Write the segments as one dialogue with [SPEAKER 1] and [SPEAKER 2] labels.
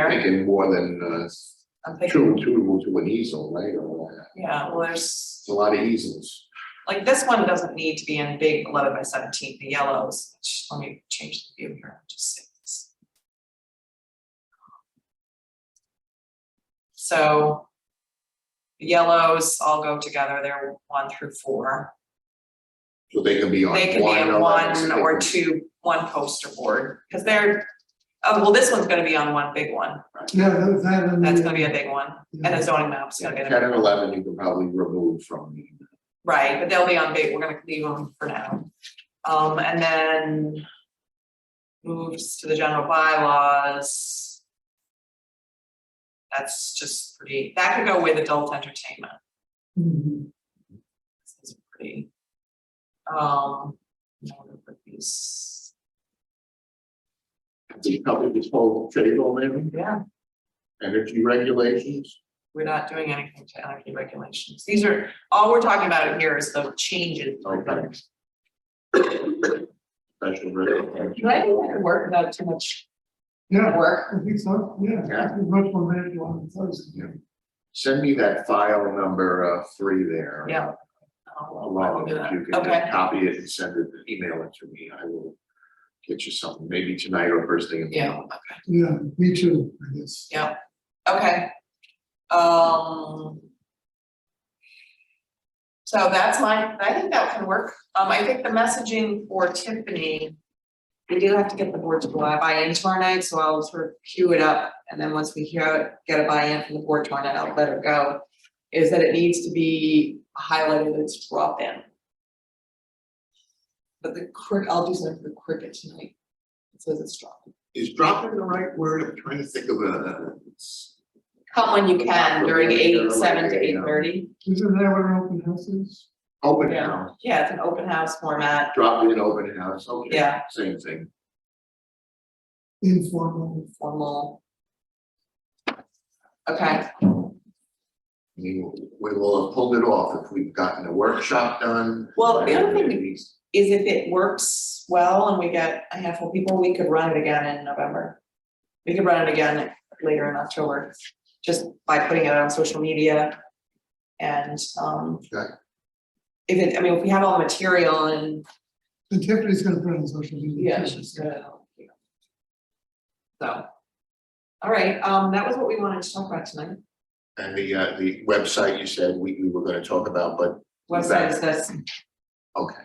[SPEAKER 1] I
[SPEAKER 2] there.
[SPEAKER 1] think more than
[SPEAKER 2] I'm
[SPEAKER 1] uh
[SPEAKER 2] thinking,
[SPEAKER 1] two, two to an easel, right? Or, uh,
[SPEAKER 2] yeah, well, there's,
[SPEAKER 1] It's a lot of easels.
[SPEAKER 2] like, this one doesn't need to be in big eleven by seventeen, the yellows, Shh, let me change the view here, just see this. So. the Yellows all go together, they're one through four,
[SPEAKER 1] So they can be on one.
[SPEAKER 2] they can be in
[SPEAKER 1] or-
[SPEAKER 2] one or
[SPEAKER 1] they
[SPEAKER 2] two, one poster board, cause they're. Oh, well, this one's gonna be on one big one,
[SPEAKER 3] Yeah, that, that. and
[SPEAKER 2] that's
[SPEAKER 3] the-
[SPEAKER 2] gonna be a big one, and
[SPEAKER 1] Mm-hmm.
[SPEAKER 2] the zoning map's gonna
[SPEAKER 1] can-
[SPEAKER 2] be. a
[SPEAKER 1] Ten and eleven, you can probably remove from. the-
[SPEAKER 2] Right, but they'll be on big, we're gonna leave them for now. Um, and then. Moves to the general bylaws. That's just pretty, that could go with adult entertainment,
[SPEAKER 3] Mhm.
[SPEAKER 2] this is pretty. Um. I'm gonna put these-
[SPEAKER 1] The public is full of trade on them,
[SPEAKER 2] Yeah,
[SPEAKER 1] energy regulations.
[SPEAKER 2] we're not doing anything to energy regulations, these are, all we're talking about here is the changes.
[SPEAKER 1] Okay. Special regulations.
[SPEAKER 2] Do I do that work without too much
[SPEAKER 3] Yeah,
[SPEAKER 2] work?
[SPEAKER 3] I think so, yeah,
[SPEAKER 1] Yeah.
[SPEAKER 3] it's much more manageable on the first.
[SPEAKER 1] Send me that file number uh three there.
[SPEAKER 2] Yeah.
[SPEAKER 1] Along with it, you can
[SPEAKER 2] Okay.
[SPEAKER 1] just copy it and send it, email it to me. I will get you something, maybe tonight or first thing in the
[SPEAKER 2] Yeah,
[SPEAKER 1] morning.
[SPEAKER 3] Yeah, me too, I guess.
[SPEAKER 2] Okay. Um. So that's my, I think that can work. Um, I think the messaging for Tiffany. We do have to get the board to buy- buy-in tomorrow night, so I'll sort of queue it up, and then once we hear, it, get a buy-in from the board tomorrow night, I'll let her go. Is that it needs to be highlighted as drop-in. But the crick, I'll do something for cricket tonight. It says it's drop-in.
[SPEAKER 1] Is dropping the right word? I'm trying to think of a.
[SPEAKER 2] Come when you can during eight, seven to
[SPEAKER 1] Yeah.
[SPEAKER 2] eight thirty.
[SPEAKER 3] Isn't that what an open house is?
[SPEAKER 1] Open
[SPEAKER 2] Yeah.
[SPEAKER 1] house,
[SPEAKER 2] Yeah, it's an open house format,
[SPEAKER 1] drop in open house, okay.
[SPEAKER 2] Yeah.
[SPEAKER 1] Same thing.
[SPEAKER 3] Informal,
[SPEAKER 2] formal. Okay,
[SPEAKER 1] We we will have pulled it off if we've gotten a workshop done.
[SPEAKER 2] Well, the other thing-
[SPEAKER 1] Maybe
[SPEAKER 2] is if it works well and we get a handful of people, we could run it again in November. We could run it again later in October, just by putting it on social media. And um.
[SPEAKER 1] Okay.
[SPEAKER 2] If it, I mean, if we have all the material and.
[SPEAKER 3] and Tiffany's gonna put it on social media. too.
[SPEAKER 2] uh, So. All right, um, that was what we wanted to talk about tonight.
[SPEAKER 1] And the uh, the website you said we we were gonna talk about, but,
[SPEAKER 2] Website is this,
[SPEAKER 1] okay.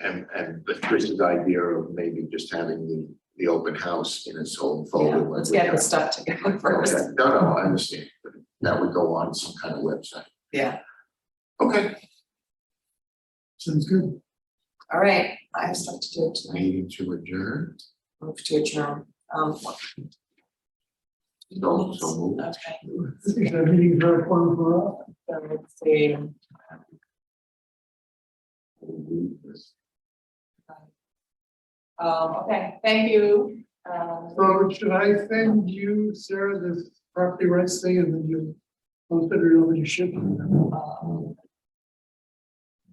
[SPEAKER 1] And and but Chris's idea of maybe just having the the open house in its own
[SPEAKER 2] yeah,
[SPEAKER 1] folder. when
[SPEAKER 2] let's
[SPEAKER 1] we
[SPEAKER 2] get
[SPEAKER 1] have-
[SPEAKER 2] this stuff together first.
[SPEAKER 1] Okay, no, no, I understand, but that would go on some kind of website.
[SPEAKER 2] Yeah.
[SPEAKER 1] Okay,
[SPEAKER 3] Sounds good.
[SPEAKER 2] All right, I have stuff to do tonight,
[SPEAKER 1] meeting to adjourn,
[SPEAKER 2] move to adjourn, um. what-
[SPEAKER 1] so so move.
[SPEAKER 2] Okay,
[SPEAKER 3] I think that meeting very fun for us.
[SPEAKER 2] so let's see, um, okay, thank you, um,
[SPEAKER 3] So should I send you, Sarah, this property rights thing and then you post it or over to ship? it?
[SPEAKER 2] um,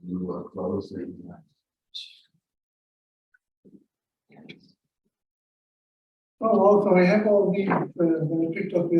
[SPEAKER 1] You are uh, closing.
[SPEAKER 3] Oh, also I have all the, uh, that I picked up the